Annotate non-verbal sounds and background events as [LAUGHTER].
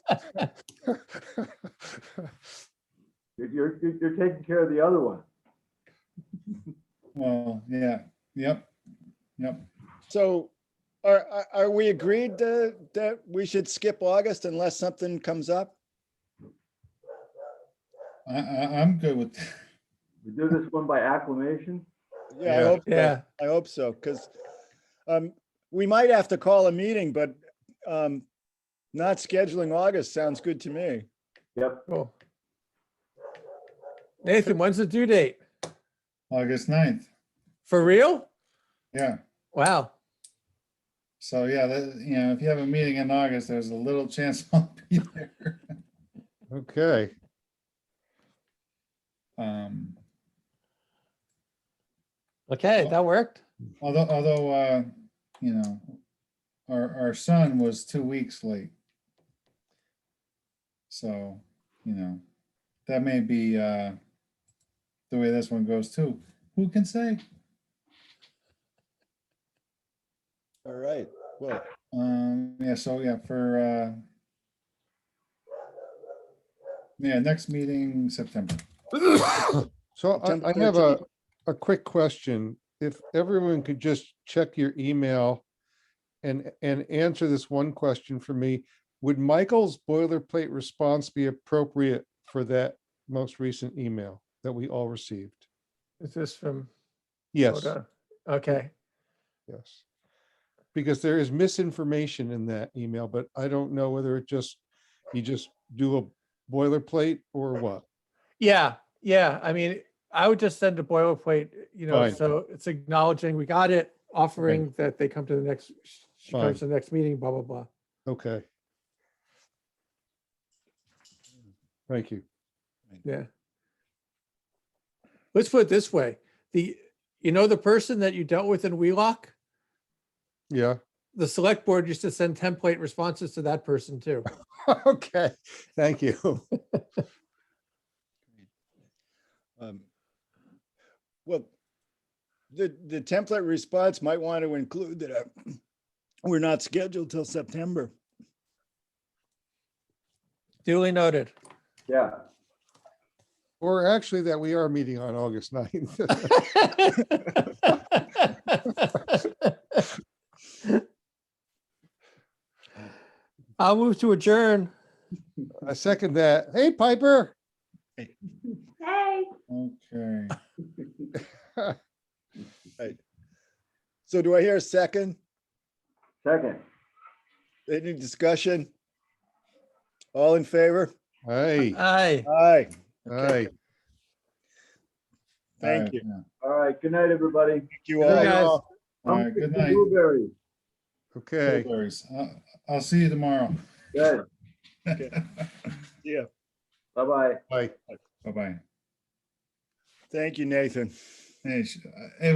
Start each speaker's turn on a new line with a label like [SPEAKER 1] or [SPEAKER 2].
[SPEAKER 1] You're, you're, you're- you're taking care of the other one.
[SPEAKER 2] Well, yeah, yep, yep.
[SPEAKER 3] So are, are- are we agreed uh, that we should skip August unless something comes up?
[SPEAKER 2] I, I, I'm good with, [LAUGHS]
[SPEAKER 1] We do this one by acclamation.
[SPEAKER 3] Yeah, I
[SPEAKER 2] Yeah.
[SPEAKER 3] hope, so.
[SPEAKER 4] Yeah,
[SPEAKER 3] I hope so, because we might have to call a meeting, but um, not scheduling August sounds good to me.
[SPEAKER 1] Yep,
[SPEAKER 4] cool. Nathan, when's the due date?
[SPEAKER 2] August 9th.
[SPEAKER 4] For real?
[SPEAKER 2] Yeah.
[SPEAKER 4] Wow.
[SPEAKER 2] So yeah, that, you know, if you have a meeting in August, there's a little chance [LAUGHS] I'll be there.
[SPEAKER 5] Okay,
[SPEAKER 2] Um,
[SPEAKER 4] Okay, that worked.
[SPEAKER 2] although, although, uh, you know, our, our son was two weeks late. So, you know, that may be, uh, the way this one goes too. Who can say?
[SPEAKER 3] All right, well,
[SPEAKER 2] Um, yeah, so yeah, for, uh, yeah, next meeting, September.
[SPEAKER 5] so
[SPEAKER 3] September
[SPEAKER 5] I, I have a,
[SPEAKER 3] 13th.
[SPEAKER 5] a quick question. If everyone could just check your email and, and answer this one question for me, would Michael's boilerplate response be appropriate for that most recent email that we all received?
[SPEAKER 4] Is this from?
[SPEAKER 5] Yes,
[SPEAKER 4] Rhoda? Okay,
[SPEAKER 5] yes. Because there is misinformation in that email, but I don't know whether it just, you just do a boilerplate or what.
[SPEAKER 4] yeah, yeah. I mean, I would just send a boilerplate, you know,
[SPEAKER 5] Fine.
[SPEAKER 4] so it's acknowledging we got it, offering that they come to the next, she
[SPEAKER 5] Fine.
[SPEAKER 4] comes to the next meeting, blah, blah, blah.
[SPEAKER 5] Okay. Thank you.
[SPEAKER 4] Yeah. Let's put it this way, the, you know, the person that you dealt with in Wheelock?
[SPEAKER 5] Yeah, [LAUGHS]
[SPEAKER 4] the select board used to send template responses to that person [LAUGHS] too.
[SPEAKER 5] okay, thank you. [LAUGHS]
[SPEAKER 3] um, well, the, the template response might want to include that uh, we're not scheduled till September.
[SPEAKER 4] Duly noted.
[SPEAKER 1] yeah.
[SPEAKER 5] Or actually that we are meeting on August 9th.
[SPEAKER 4] I'll move to adjourn.
[SPEAKER 5] [LAUGHS] I second that. Hey Piper,
[SPEAKER 6] Hey.
[SPEAKER 2] Okay.
[SPEAKER 3] So do I hear a second?
[SPEAKER 1] Second,
[SPEAKER 3] Any discussion? All in favor?
[SPEAKER 5] hey,
[SPEAKER 4] Aye.
[SPEAKER 3] Aye,
[SPEAKER 5] hey.
[SPEAKER 3] Thank
[SPEAKER 2] Alright,
[SPEAKER 3] you.
[SPEAKER 2] yeah.
[SPEAKER 1] all right, good night, everybody.
[SPEAKER 3] thank you
[SPEAKER 4] Good
[SPEAKER 3] all.
[SPEAKER 4] night. guys.
[SPEAKER 2] All
[SPEAKER 1] I'm
[SPEAKER 2] right, good
[SPEAKER 1] picking
[SPEAKER 2] night.
[SPEAKER 1] Blueberries,
[SPEAKER 5] okay.
[SPEAKER 2] Blueberries. Uh, I'll see you tomorrow.
[SPEAKER 1] good,
[SPEAKER 3] Yeah,
[SPEAKER 1] bye-bye.
[SPEAKER 5] Bye.
[SPEAKER 2] Bye-bye.
[SPEAKER 3] thank you, Nathan.
[SPEAKER 2] Hey, sh- uh,